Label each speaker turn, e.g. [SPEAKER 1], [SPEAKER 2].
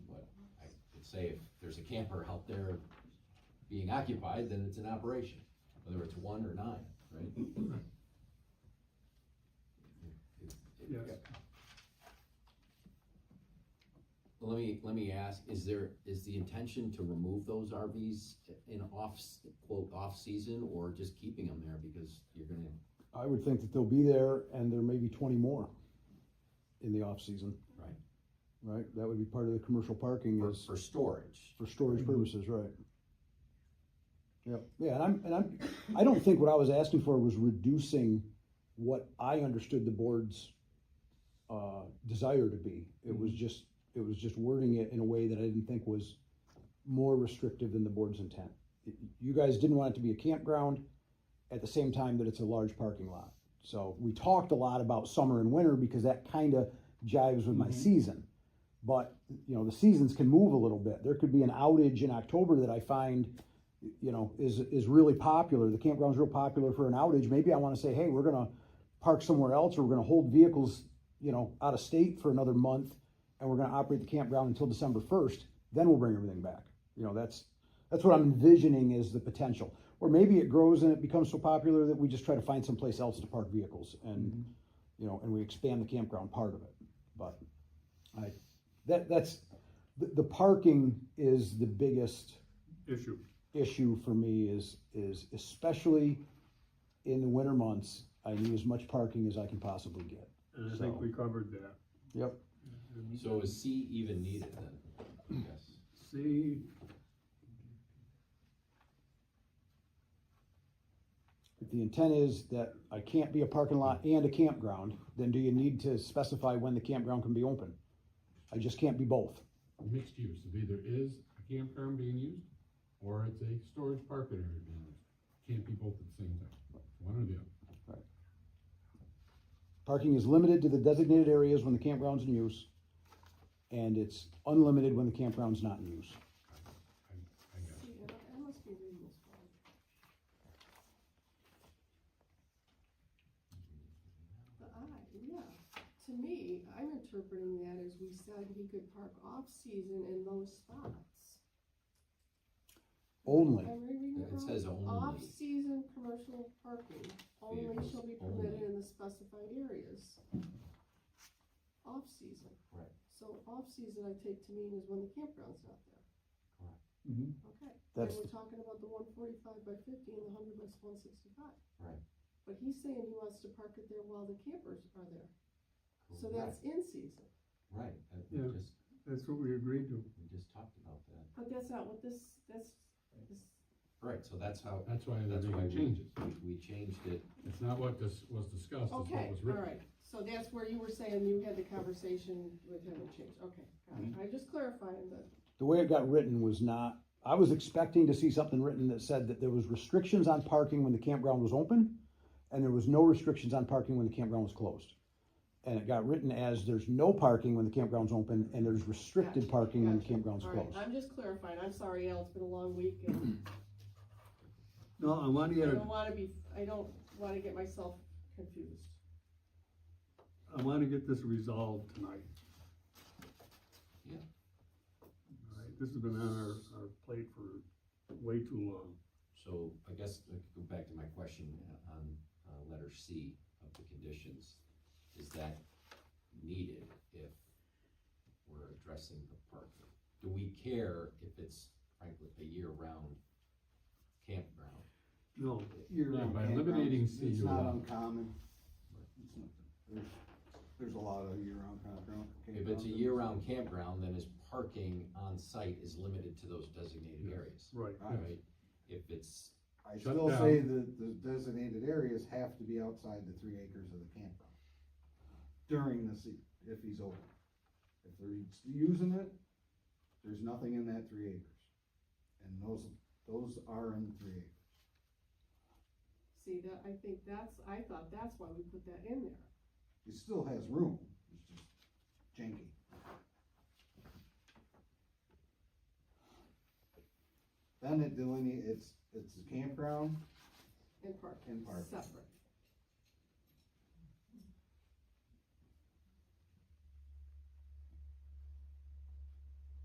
[SPEAKER 1] say if there's a camper out there being occupied, then it's an operation, whether it's one or nine, right? It- it-
[SPEAKER 2] Yes.
[SPEAKER 1] Let me, let me ask, is there, is the intention to remove those RVs in off, quote, off-season or just keeping them there because you're gonna,
[SPEAKER 3] I would think that they'll be there and there may be twenty more in the off-season,
[SPEAKER 1] right?
[SPEAKER 3] right? That would be part of the commercial parking
[SPEAKER 1] For,
[SPEAKER 3] is
[SPEAKER 1] for storage,
[SPEAKER 3] for storage purposes, right? Yep, Mm-hmm. yeah, and I'm, and I'm, I don't think what I was asking for was reducing what I understood the board's uh, desire to be. It was just, it was just wording it in a way that I didn't think was more restrictive than the board's intent. You guys didn't want it to be a campground at the same time that it's a large parking lot. So we talked a lot about summer and winter because that kind of jives with my season. But, you know, the seasons can move a little bit. There could be an outage in October that I find, you know, is, is really popular. The campground's real popular for an outage. Maybe I want to say, hey, we're going to park somewhere else or we're going to hold vehicles, you know, out of state for another month and we're going to operate the campground until December 1st. Then we'll bring everything back. You know, that's, that's what I'm envisioning is the potential. Or maybe it grows and it becomes so popular that we just try to find someplace else to park vehicles and, you know, and we expand the campground part of it. But I, that, that's, the, the parking is the biggest
[SPEAKER 2] issue.
[SPEAKER 3] issue for me is, is especially in the winter months, I need as much parking as I can possibly get.
[SPEAKER 2] And I think we covered that.
[SPEAKER 3] Yep.
[SPEAKER 2] And
[SPEAKER 1] so is C even needed then? Yes.
[SPEAKER 2] C,
[SPEAKER 3] If the intent is that I can't be a parking lot and a campground, then do you need to specify when the campground can be open? I just can't be both.
[SPEAKER 4] mixed use, it either is a campground being used, or it's a storage parking area being used. Can't be both at the same time, one or the other.
[SPEAKER 3] Parking is limited to the designated areas when the campground's in use, and it's unlimited when the campground's not in use.
[SPEAKER 4] I guess.
[SPEAKER 5] See, I I must be reading this wrong. The I, yeah, to me, I'm interpreting that as we said he could park off-season in those spots.
[SPEAKER 3] Only,
[SPEAKER 5] Am I reading
[SPEAKER 1] It
[SPEAKER 5] it wrong?
[SPEAKER 1] says only,
[SPEAKER 5] Off-season commercial parking only
[SPEAKER 1] Vehicles
[SPEAKER 5] shall be
[SPEAKER 1] only.
[SPEAKER 5] permitted in the specified areas. Off-season.
[SPEAKER 1] Right.
[SPEAKER 5] So off-season I take to mean is when the campground's not there.
[SPEAKER 2] Mhm.
[SPEAKER 5] Okay. And
[SPEAKER 3] that's,
[SPEAKER 5] we're talking about the one forty-five by fifty and the hundred by one sixty-five.
[SPEAKER 1] Right.
[SPEAKER 5] But he's saying he wants to park it there while the campers are there, so
[SPEAKER 1] correct,
[SPEAKER 5] that's in season,
[SPEAKER 1] Right, I-
[SPEAKER 2] Yeah.
[SPEAKER 1] we just,
[SPEAKER 2] that's what we agreed to.
[SPEAKER 1] we just talked about that.
[SPEAKER 5] but that's not what this, that's, this,
[SPEAKER 1] Right, so that's how,
[SPEAKER 4] That's why
[SPEAKER 1] that's
[SPEAKER 4] they're
[SPEAKER 1] why
[SPEAKER 4] making
[SPEAKER 1] we,
[SPEAKER 4] changes.
[SPEAKER 1] we changed it,
[SPEAKER 4] It's not what this was discussed, it's what
[SPEAKER 5] okay,
[SPEAKER 4] was
[SPEAKER 5] all
[SPEAKER 4] written.
[SPEAKER 5] right. So that's where you were saying you had the conversation with him and changed, okay, got it, I'm just clarifying that,
[SPEAKER 3] the way it got written was not, I was expecting to see something written that said that there was restrictions on parking when the campground was open, and there was no restrictions on parking when the campground was closed. And it got written as there's no parking when the campground's open, and there's restricted
[SPEAKER 5] Gotcha,
[SPEAKER 3] parking when the
[SPEAKER 5] gotcha.
[SPEAKER 3] campground's
[SPEAKER 5] all right,
[SPEAKER 3] closed.
[SPEAKER 5] I'm just clarifying, I'm sorry, Al, it's been a long week, and
[SPEAKER 2] No, I want to
[SPEAKER 5] I
[SPEAKER 2] get,
[SPEAKER 5] don't wanna be, I don't wanna get myself confused.
[SPEAKER 2] I want to get this resolved tonight.
[SPEAKER 1] Yeah.
[SPEAKER 2] All right, this has been on our, our plate for way too long.
[SPEAKER 1] so I guess, I could go back to my question on, uh, letter C of the conditions. Is that needed if we're addressing the parking? Do we care if it's frankly a year-round campground?
[SPEAKER 2] No,
[SPEAKER 4] Yeah,
[SPEAKER 6] year-round
[SPEAKER 4] by
[SPEAKER 6] campgrounds,
[SPEAKER 4] eliminating
[SPEAKER 6] It's
[SPEAKER 4] CUI.
[SPEAKER 6] not uncommon. It's not- There's, there's a lot of year-round campground.
[SPEAKER 1] If it's a
[SPEAKER 6] campgrounds.
[SPEAKER 1] year-round campground, then his parking on site is limited to those designated
[SPEAKER 4] Yes.
[SPEAKER 1] areas,
[SPEAKER 2] right,
[SPEAKER 6] I-
[SPEAKER 1] right? If it's
[SPEAKER 6] I
[SPEAKER 4] Shut
[SPEAKER 6] still say
[SPEAKER 4] down.
[SPEAKER 6] that the designated areas have to be outside the three acres of the campground during the sea, if he's open. If they're using it, there's nothing in that three acres. And those, those are in three acres.
[SPEAKER 5] See, that, I think that's, I thought that's why we put that in there.
[SPEAKER 6] It still has room, it's just janky. Then it deline, it's, it's a campground
[SPEAKER 5] And parking.
[SPEAKER 6] And parking.
[SPEAKER 5] Separate.